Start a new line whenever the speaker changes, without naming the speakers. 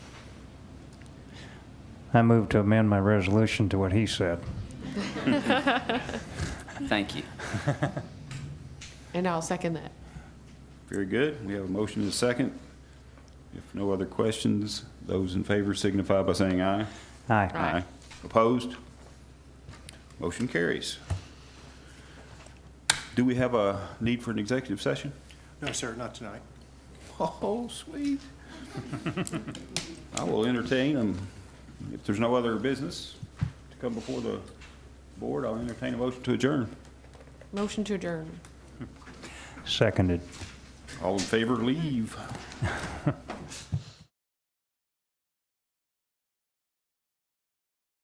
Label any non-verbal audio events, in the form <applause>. I move to amend my resolution to what he said.
Thank you.
And I'll second that.
Very good. We have a motion and a second. If no other questions, those in favor signify by saying aye.
Aye.
Aye.
Opposed? Motion carries. Do we have a need for an executive session?
No, sir, not tonight.
Oh, sweet. <laughs> I will entertain, um, if there's no other business to come before the board, I'll entertain a motion to adjourn.
Motion to adjourn.
Seconded.
All in favor, leave.